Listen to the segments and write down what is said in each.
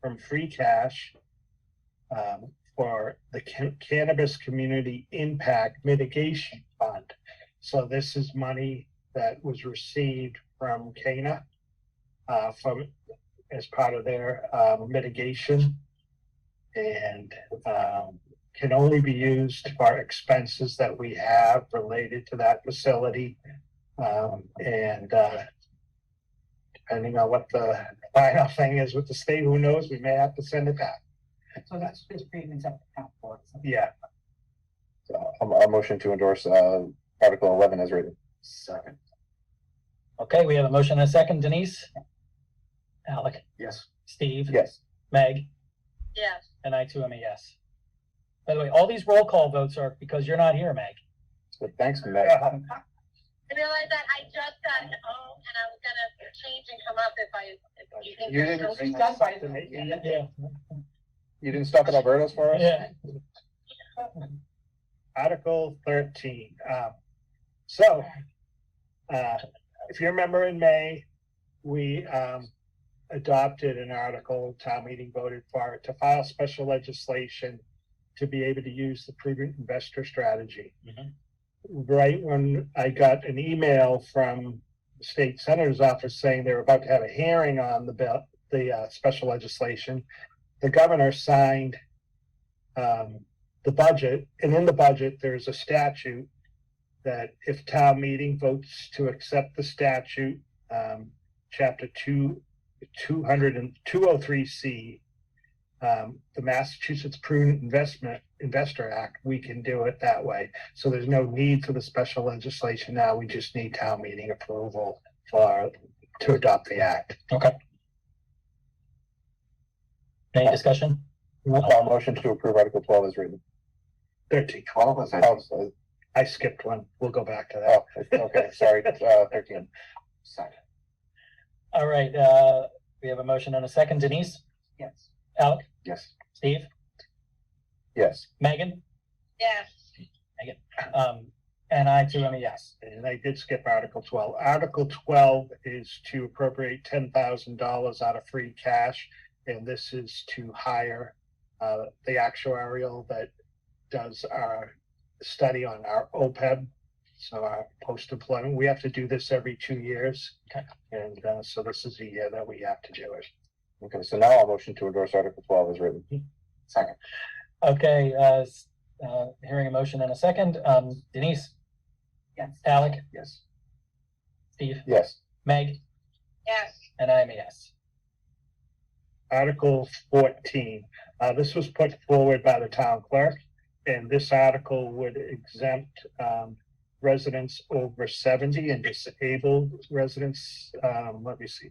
from free cash um, for the Ca- Cannabis Community Impact Mitigation Fund. So this is money that was received from Cana uh, from as part of their um, mitigation, and um, can only be used for expenses that we have related to that facility. Um, and uh, depending on what the final thing is with the state, who knows? We may have to send it back. So that's just payments up to town board. so. Yeah. So I'll, I'll motion to endorse, uh, Article eleven as written. Second. Okay, we have a motion and a second. Denise? Alec? Yes. Steve? Yes. Meg? yes, And I too am a yes. By the way, all these roll call votes are because you're not here, Meg. But thanks, Meg. I realized that I just got home and I was gonna change and come up if I, if you think. You there's didn't no- She's done by the- yeah. Yeah. You didn't stop at Alberto's for us? Yeah. Article thirteen. Um, so, uh, if you remember in May, we, um, adopted an article, town meeting voted for it, to file special legislation to be able to use the prudent investor strategy. Mhm. Right when I got an email from the state senator's office saying they were about to have a hearing on the bill, the, uh, special legislation, the governor signed, um, the budget, and in the budget, there's a statute that if town meeting votes to accept the statute, um, chapter two, two hundred and, two oh three C, um, the Massachusetts Prudent Investment Investor Act, we can do it that way. So there's no need for the special legislation now, we just need town meeting approval for, to adopt the act. Any discussion? I'll motion to approve Article twelve as written. Thirteen, Twelve was. Oh, so- I skipped one, we'll go back to that. oh, okay, sorry, uh, thirteen. All right, uh, we have a motion and a second. Denise? Yes. Alec? Yes. Steve? Yes. Megan? Yes, Um, and I too am a yes. And I did skip Article twelve. Article twelve is to appropriate ten thousand dollars out of free cash. And this is to hire uh the actuarial that does our study on our OPEB. So our post-employment, we have to do this every two years. Okay. And uh so this is the year that we have to do it. Okay, so now I'll motion to endorse Article twelve as written. Second. Okay, uh, s- uh, hearing a motion and a second. Um, Denise? Yes. Alec? Yes. Steve? Yes. Meg? yes, And I am a yes. Article fourteen, uh, this was put forward by the town clerk, and this article would exempt, um, residents over seventy and disabled residents, um, let me see.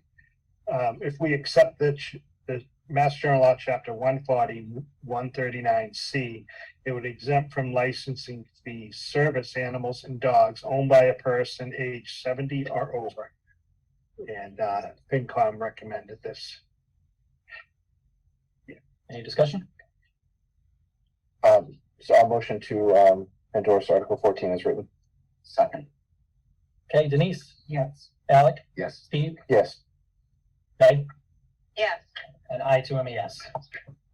Um, if we accept the, ch- the Mass General Law, Chapter 140, 139 C, it would exempt from licensing fees service animals and dogs owned by a person age seventy or over. And, uh, FinCom recommended this. Any discussion? Um, so I'll motion to, um, endorse Article fourteen as written. Second. Okay, Denise? Yes. Alec? Yes. Steve? Yes. Meg? yes, And I too am a yes.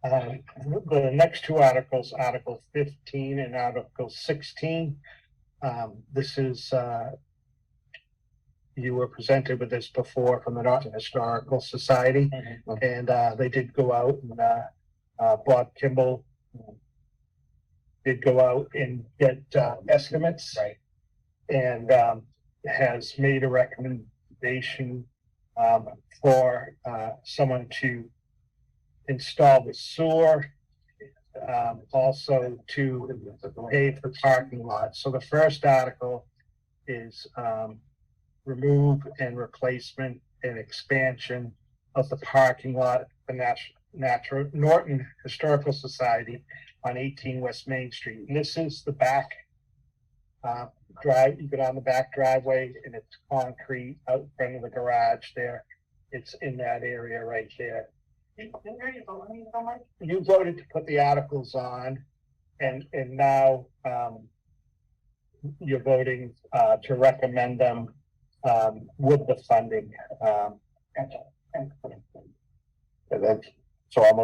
Um, the next two articles, Article fifteen and Article sixteen. Um, this is, uh, you were presented with this before from the Norton Historical Society. Mhm. And uh, they did go out and uh, uh, Bob Kimball um, did go out and get uh, estimates Right. and um, has made a recommendation um, for uh, someone to install the sewer, um, also to pay for parking lots. So the first article is um, remove and replacement and expansion of the parking lot, the Nat- Natural, Norton Historical Society on eighteen West Main Street. And this is the back uh, drive, you go down the back driveway and it's concrete out front of the garage there. It's in that area right there. Didn't hear you vote on it so much? You voted to put the articles on and, and now, um, you're voting, uh, to recommend them, um, with the funding, um, Gotcha. Thank you. And then, So I'll motion